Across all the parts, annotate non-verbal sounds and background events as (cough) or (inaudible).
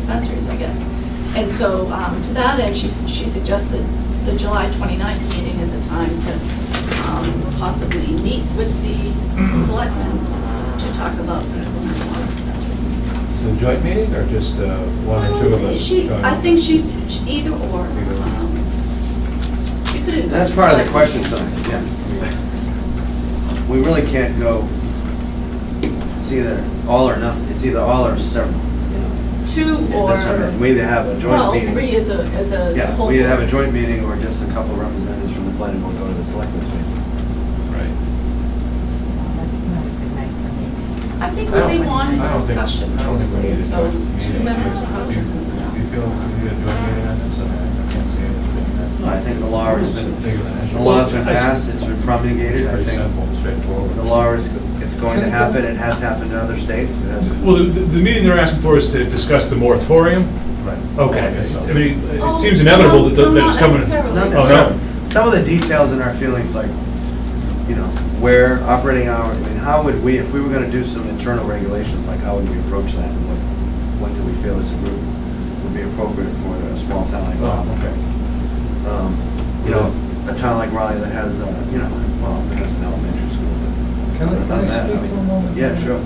dispensaries, I guess. And so, um, to that end, she, s- she suggested the July 29th meeting is a time to um, possibly meet with Mm-hmm. the selectmen to talk about medical marijuana dispensaries. So joint meeting or just uh, one or two of Um, us? She, going? I think she's she- either or. Either or. um, You could. That's part of the select- question, though, yeah. We really can't go, it's either all or nothing, it's either all or several, you know. Two or, That's what I mean. We either have a joint well, three meeting. as a, as a Yeah, whole. we either have a board. joint meeting or just a couple representatives from the planning board go to the selectmen's meeting. Right. That's not a good night for me. I think I what don't they think- want is I a don't think- discussion, I don't think we truthfully, need and a so joint two meeting. members Do you- probably isn't Do you enough. feel we need a joint meeting on this? I mean, I can't see anything No, I think the law has that's been, bigger than an issue. the law's been passed, it's been promulgated, It's I pretty think simple, straightforward. the law is, it's going to happen, it has happened in other states, it has. Well, the, the meeting they're asking for is to discuss the moratorium? Right. Okay, so- I mean, Oh, it seems inevitable that, no, that it's coming. Not necessarily. Not Oh, no. necessarily. Some of the details in our feelings, like, you know, where operating hours, I mean, how would we, if we were gonna do some internal regulations, like, how would we approach that? and What, what do we feel as a group would be appropriate for a small town like Oh, Raleigh? okay. Um, You know, a town like Raleigh that has, uh, you know, well, it has an elementary school, but. Can I- other can I than that, speak mean- for a moment? Yeah, sure.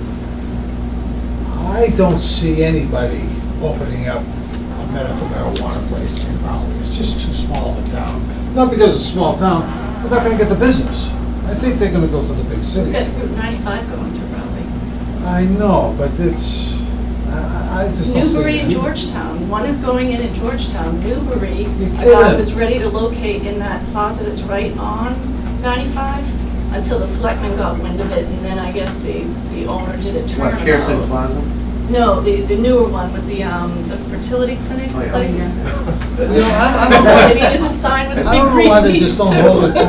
I don't see anybody opening up a medical marijuana place in Raleigh. It's just too small of a town. Not because it's a small town, they're not gonna get the business. I think they're gonna go to the big We've cities. got Route 95 going through Raleigh. I know, but it's, I, I- I just don't see. Newbury and it. Georgetown, one is going in at Georgetown. Newbury, You're a guy kidding. was ready to locate in that plaza that's right on 95 until the selectmen got wind of it, and then I guess the, the owner did a turnaround. What, Pearson Plaza? No, the, the newer one with the, um, the fertility clinic Oh, yeah. place. You know, (laughs) I, I don't know. Maybe there's a sign with a I big don't know green why they leaf, just don't too. hold it to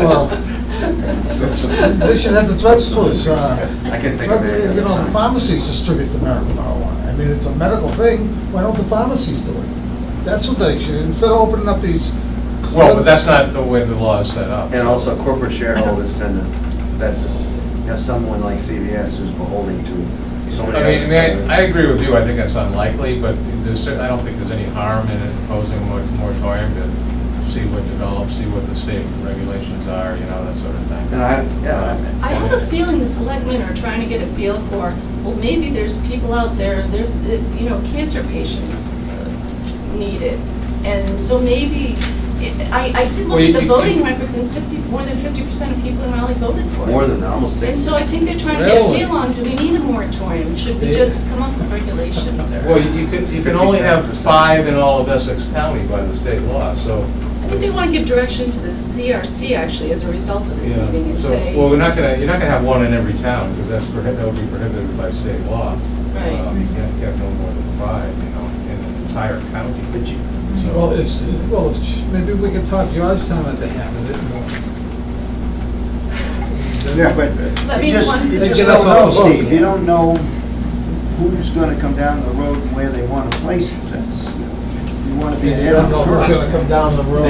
(laughs) a, they should have the drug stores, uh, I can think drug, of it. you know, the pharmacies distribute the medical marijuana. I mean, it's a medical thing, why don't the pharmacies do it? That's what they should, instead of opening up these. Well, but that's not the way the law is set up. And also corporate shareholders tend to, that's, have someone like CVS who's beholden to so many. I mean, other I- I agree with you, I think that's unlikely, but there's, cer- I don't think there's any harm in imposing a mor- moratorium to see what develops, see what the state regulations are, you know, that sort of thing. And I, yeah, I have a feeling the selectmen are trying to get a feel for, well, maybe there's people out there, there's, uh, you know, cancer patients uh, need it. And so maybe, it- I, I did Well, look you- at the you- voting records and fifty, more than fifty percent of people in Raleigh voted for I- it. more than that, almost And six. so I think they're trying to get a Really? feel on, do we need a moratorium? Should we Yeah. just come up with regulations or? Well, you could, you can only have 57%. five in all of Essex County by the state law, so. I think they want to give direction to the CRC actually as a result of this Yeah, meeting and so- say, Well, we're not gonna, you're not gonna have one in every town, because that's prohi- that would be prohibited by state law. right. Um, You can't have no more than five, you know, in an entire county. But you- So- Well, it's, it's- well, it's- maybe we could talk Georgetown at the hand of it more. Yeah, but That you means just, one. you They just get don't us all know, voted. Steve, you don't know who's gonna come down the road and where they wanna place it, that's, you wanna be You ahead don't of the know who's gonna curve. come down the road.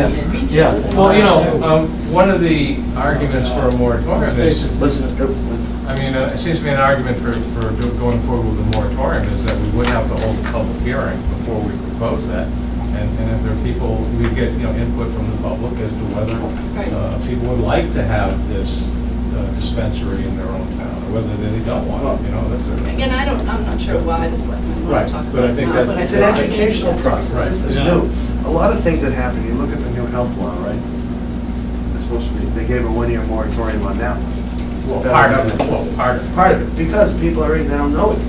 Yeah. Yeah, well, you know, Yeah. um, one of the arguments for a moratorium Let's face is, it. Listen, uh, I mean, uh, it seems to be an argument for, for do- going forward with a moratorium is that we would have to hold a public hearing before we propose that. And, and if there are people, we get, you know, input from the public as to whether, Right. uh, people would like to have this uh, dispensary in their own town, or whether they don't want it, you know, that's a. Again, I don't, I'm not sure why the selectmen want Right, to talk but I about it think now, that- but I it's an think maybe educational that's- process, this is Right. new. A lot of things that happen, you look at the new health law, right? It's supposed to be, they gave a one-year moratorium on that one. Well, part of it, well, part of it. Part of it, because people are, they don't know it.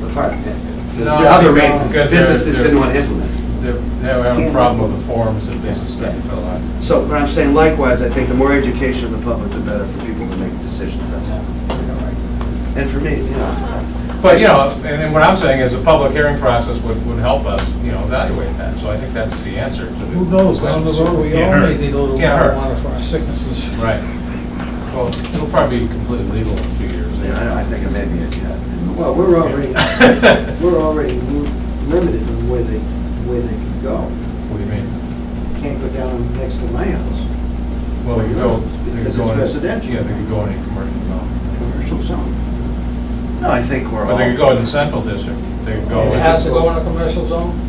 But part of it, there's No, I other think reasons, because they're- businesses they're- didn't want to implement it. They're, they're having a problem with the forms that business Yeah. that you fill out. So, but I'm saying likewise, I think the more education of the public, the better for people to make decisions, that's all. And for me, you know, But, you know, and then what I'm saying is a public hearing process would, would help us, you know, evaluate that, so I think that's the answer to the. Who knows, down the road, we all Can't may hurt. need a little Can't hurt. marijuana for our sicknesses. Right. Well, it'll probably be completely legal in a few years. yeah, I don't- I think it may be, a- yeah. Well, we're (laughs) already, we're already mo- limited on where they, where they can go. What do you mean? Can't go down next to my house, Well, they could go. they could Because go it's in- residential. Yeah, they could go in a commercial zone. commercial zone. No, I think we're all. But they could go in the central district, they could go. It in- has to go in a commercial zone?